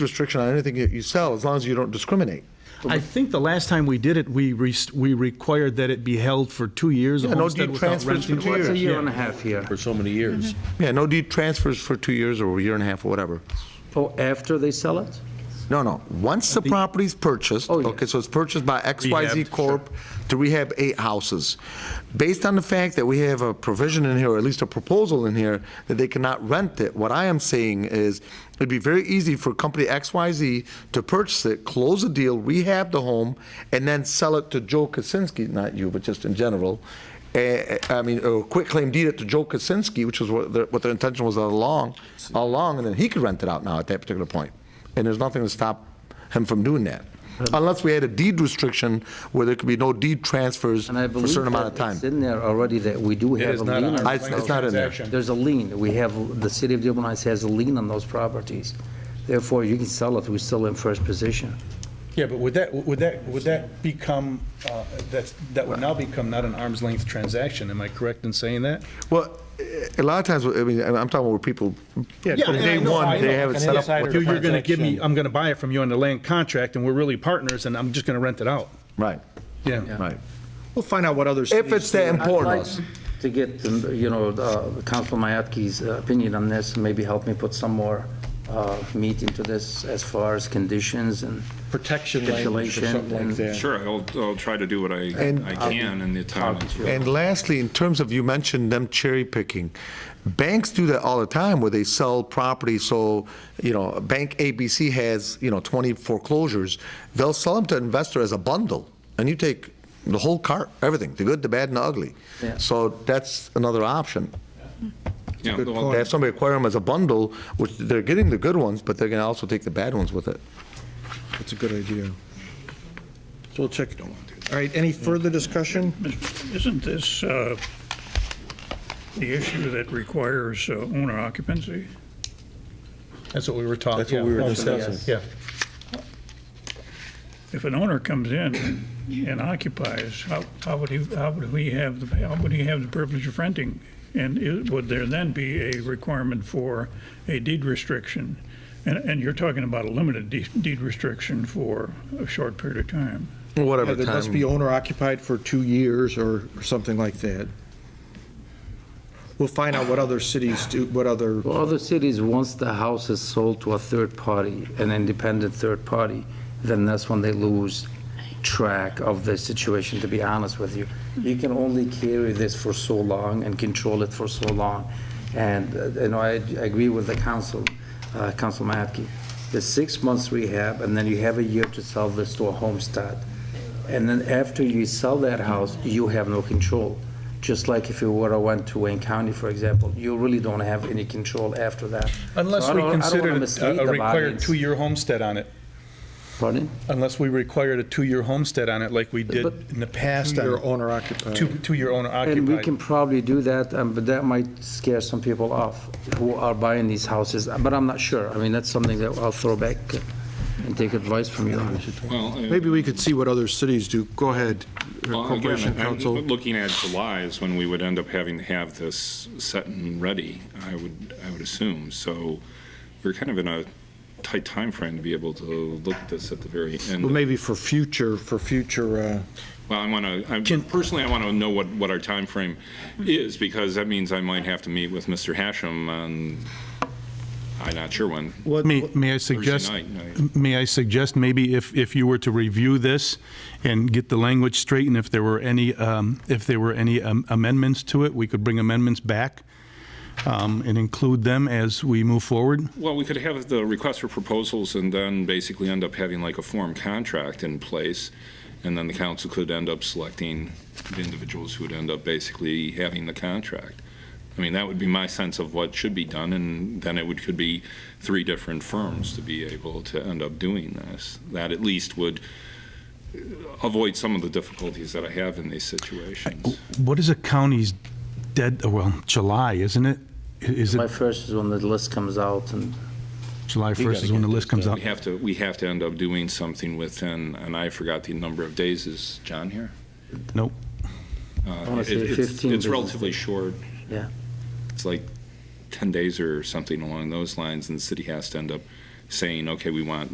restriction on anything that you sell, as long as you don't discriminate. I think the last time we did it, we, re- we required that it be held for two years. a Yeah, no homestead deed without transfers for renting. two What's years. a a year yeah. and a half here. for so many years. Mm-hmm. Yeah, no deed transfers for two years or a year and a half or whatever. Oh, after they sell it? No, no, once the property's purchased, Oh, yeah. okay, so it's purchased by Rehabbed, XYZ sure. Corp. to rehab eight houses. Based on the fact that we have a provision in here, or at least a proposal in here, that they cannot rent it, what I am saying is, it'd be very easy for company XYZ to purchase it, close the deal, rehab the home, and then sell it to Joe Kaczynski, not you, but just in general. Eh, eh, I mean, or quit claim deed it to Joe Kaczynski, which was what their, what their intention was all along, all along, and then he could rent it out now at that particular point. And there's nothing to stop him from doing that. Unless we had a deed restriction where there could be no deed transfers And I for a believe certain amount that of it's time. in there already that we do It have is a not lien. on on- I- it's not in there. There's a lien. We have, the city of Dearborn Heights has a lien on those properties. Therefore, you can sell it. We're still in first position. Yeah, but would that, would that, would that become, uh, that's, that would now become not an arm's length transaction, am I correct in saying that? Well, eh, a lot of times, I mean, I'm talking where people, from day one, they have it set up. with- You're going to give me, I'm going to buy it from you on the land contract, and we're really partners, and I'm just going to rent it out. Right, Yeah. right. We'll find out what other If cities it's do. that I'd like important. To get, um, you know, uh, Councilor Mayatki's uh, opinion on this, maybe help me put some more uh, meat into this as far as conditions and Protection language or stipulation. something like and- that. Sure, I'll, I'll try to do what I, And- I can in the time. I- And lastly, in terms of, you mentioned them cherry picking. Banks do that all the time where they sell property, so, you know, Bank ABC has, you know, 20 foreclosures. They'll sell them to an investor as a bundle, and you take the whole cart, everything, the good, the bad, and the ugly. Yeah. So that's another option. Yeah, They well, have somebody acquire them as a bundle, which they're getting the good ones, but they're going to also take the bad ones with it. That's a good idea. So we'll check it out. All right, any further discussion? Isn't this uh, the issue that requires uh, owner occupancy? That's what we were talking. That's what we were yeah. discussing. Yeah. If an owner comes in and occupies, how how would he, how would he have, the how would he have the privilege of renting? And i- would there then be a requirement for a deed restriction? And, and you're talking about a limited de- deed restriction for a short period of time. Whatever It time. must be owner occupied for two years or or something like that. We'll find out what other cities do, what other, Well, other cities, once the house is sold to a third party, an independent third party, then that's when they lose track of the situation, to be honest with you. You can only carry this for so long and control it for so long. And, uh, you know, I I agree with the council, uh, Council Matke. The six months rehab, and then you have a year to sell this to a homestead. And then after you sell that house, you have no control. Just like if you were, went to Wayne County, for example, you really don't have any control after that. So Unless I we don't- I don't wanna considered mislead a- a the required audience. two-year homestead on it, Pardon? unless we required a two-year homestead on it like we did But- in the past. on- your owner occupied. Two, two-year owner And we can occupied. probably do that, um, but that might scare some people off who are buying these houses, but I'm not sure. I mean, that's something that I'll throw back and take advice from you on. well, uh, Maybe we could see what other cities do. Go ahead, well, Corporation again, I'm Council. Looking at July is when we would end up having to have this set and ready, I would, I would assume. So we're kind of in a tight time frame to be able to look at this at the very end. Well, maybe for future, for future, uh, Well, I want to, personally, I want to know what, what our time frame is, because that means I might have to meet with Mr. Hashem on, I'm not sure when. May, may I suggest, night, night. may I suggest maybe if, if you were to review this and get the language straight and if there were any, um, if there were any um, amendments to it, we could bring amendments back um, and include them as we move forward? Well, we could have the request for proposals and then basically end up having like a form contract in place, and then the council could end up selecting the individuals who would end up basically having the contract. I mean, that would be my sense of what should be done, and then it would, could be three different firms to be able to end up doing this. That at least would avoid some of the difficulties that I have in these situations. What is a county's dead, oh, well, July, isn't it? Is My it first is when the list comes out and July 1st is when the list comes out? We have to, we have to end up doing something within, and I forgot the number of days, is John here? Nope. Uh, wanna it- say it's- 15 It's business relatively short. Yeah. It's like 10 days or something along those lines, and the city has to end up saying, okay, we want